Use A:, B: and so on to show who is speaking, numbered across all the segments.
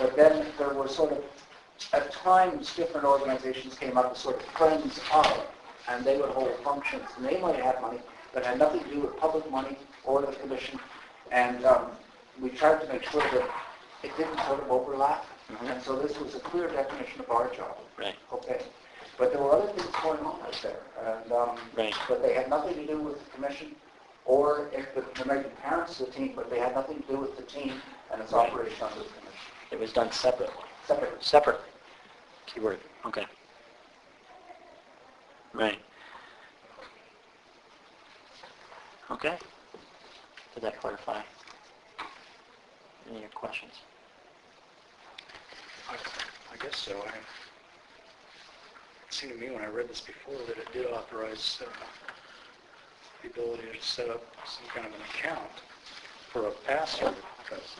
A: there were sort of, at times, different organizations came up as sort of friends of, and they would hold functions, and they might have money that had nothing to do with public money or the commission. And um, we tried to make sure that it didn't sort of overlap, and so this was a clear definition of our job.
B: Mm-hmm. Right.
A: Okay. But there were other things going on out there, and, um,
B: Right.
A: but they had nothing to do with the commission or if the the American parents of the team, but they had nothing to do with the team and its
B: Right.
A: operation under the commission.
B: It was done separately.
A: Separate.
B: Separate. Keyword. Okay. Right. Okay. Did that clarify? Any other questions?
C: I I guess so. I- It seemed to me when I read this before that it did authorize uh, the ability to set up some kind of an account for a pastor. because-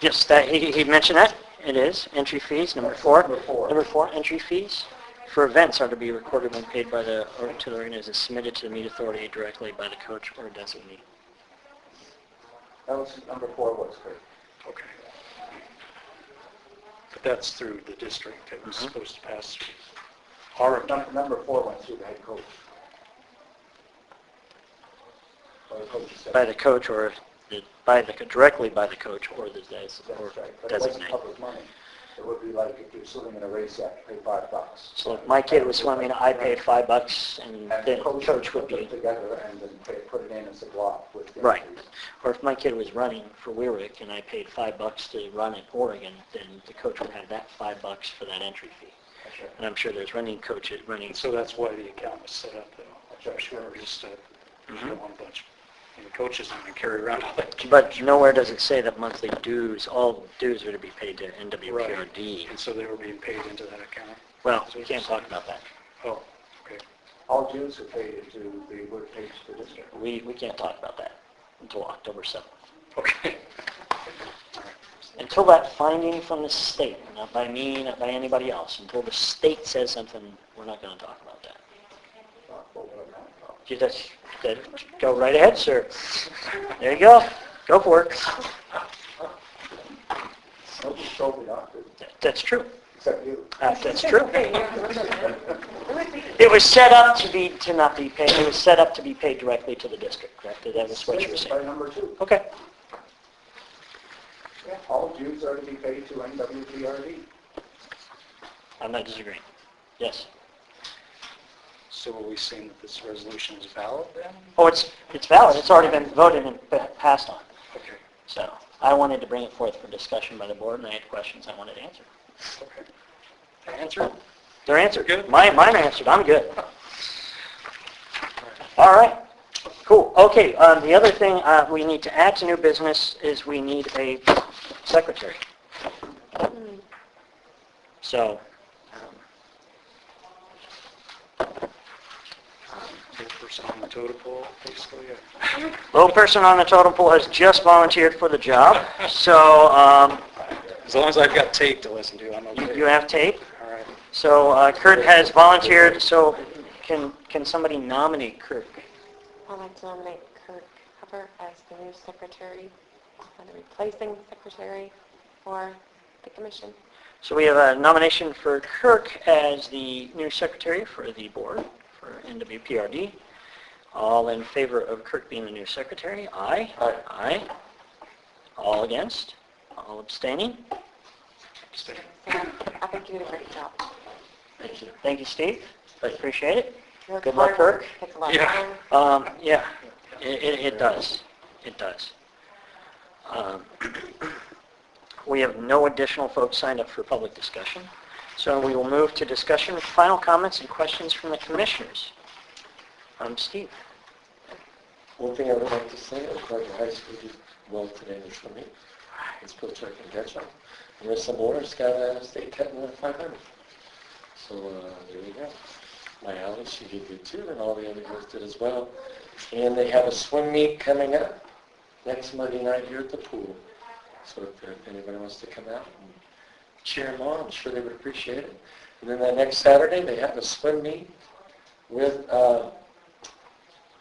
B: Yes, that, he, he mentioned that. It is. Entry fees, number
A: That's
B: four.
A: number four.
B: Number four, entry fees for events are to be recorded when paid by the, or to the organizers, submitted to the meet authority directly by the coach or designee.
A: That was number four was great.
C: Okay. But that's through the district. It was
B: Mm-hmm.
C: supposed to pass through our account.
A: Number, number four went through the head coach. Or the coach said.
B: By the coach or the, by the, directly by the coach or the des- or
A: That's right, but it wasn't
B: designate.
A: public money. It would be like if you're swimming in a race, you have to pay five bucks.
B: So if my kid was swimming, I paid five bucks and
A: And
B: the
A: the
B: coach would
A: put it
B: be,
A: Together and then put it- put it in as a block with. the
B: right.
A: entries.
B: Or if my kid was running for Weirwick and I paid five bucks to run at Oregon, then the coach would have that five bucks for that entry fee.
A: That's right.
B: And I'm sure there's running coaches, running,
C: And so that's why the account was set up, though.
A: Sure.
C: I'm sure, just to, you
B: Mm-hmm.
C: don't want a bunch, you know, coaches and carry around all that.
B: but nowhere does it say that monthly dues, all dues are to be paid to
C: Right, and
B: NWPRD.
C: so they were being paid into that account?
B: Well,
C: Is what
B: we
C: you're
B: can't
C: saying?
B: talk about that.
C: Oh, okay.
A: All dues are paid to the, were paid to the district.
B: We, we can't talk about that until October 7th.
C: Okay.
B: until that finding from the state, not by me, not by anybody else, until the state says something, we're not going to talk about that.
A: Not what we're not about.
B: You just, then go right ahead, sir. There you go. Go for it.
A: Nobody told me not to,
B: That- That's true.
A: except you.
B: Uh, That's true. It was set up to be, to not be paid, it was set up to be paid directly to the district, correct? That was what you were
A: This is by
B: saying.
A: number two.
B: Okay.
A: Yeah, All dues are to be paid to NWPRD.
B: I'm not disagreeing. Yes.
C: So are we saying that this resolution is valid then?
B: Oh, it's, it's valid. It's already been voted and pa- passed on.
C: Okay,
B: So I wanted to bring it forth for discussion by the board, and I had questions I wanted answered.
C: okay. The Answer?
B: They're answered.
C: Good.
B: Mine, mine are answered. I'm good. All right. Cool. Okay, um, the other thing, uh, we need to add to new business is we need a secretary. So,
C: Third person on the totem pole, basically. yeah.
B: low person on the totem pole has just volunteered for the job, so, um,
C: As long as I've got tape to listen to, I'm
B: you-
C: okay.
B: you have tape.
C: All right.
B: So uh, Kurt has volunteered, so can, can somebody nominate Kurt?
D: I'd like to nominate Kurt Huber as the new secretary, uh, the replacing secretary for the commission.
B: So we have a nomination for Kirk as the new secretary for the board for NWPRD. All in favor of Kirk being the new secretary? Aye.
A: Aye.
B: Aye. All against? All abstaining?
C: Stay.
D: Sam, I think you did a great job.
B: Thank you. Thank you, Steve. I appreciate it.
D: Your
B: Good luck,
D: hard work
B: Kirk.
D: Takes a lot of
C: Yeah.
D: time.
B: Um, yeah, it, it, it does. It does. Um, we have no additional folks signed up for public discussion. So we will move to discussion, final comments and questions from the commissioners. Um, Steve?
E: One thing I would like to say, I'm glad the high school did well today in swimming. It's supposed to catch up. And there's some orders got a state cut in the 500. So uh, there you go. My Ally, she did good too, and all the other girls did as well. And they have a swim meet coming up next Monday night here at the pool. So if there- if anybody wants to come out and cheer them on, I'm sure they would appreciate it. And then that next Saturday, they have a swim meet with uh,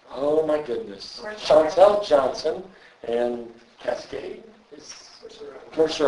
E: Oh my goodness.
D: Where's-
E: Chantel Johnson and Cascade is Mercer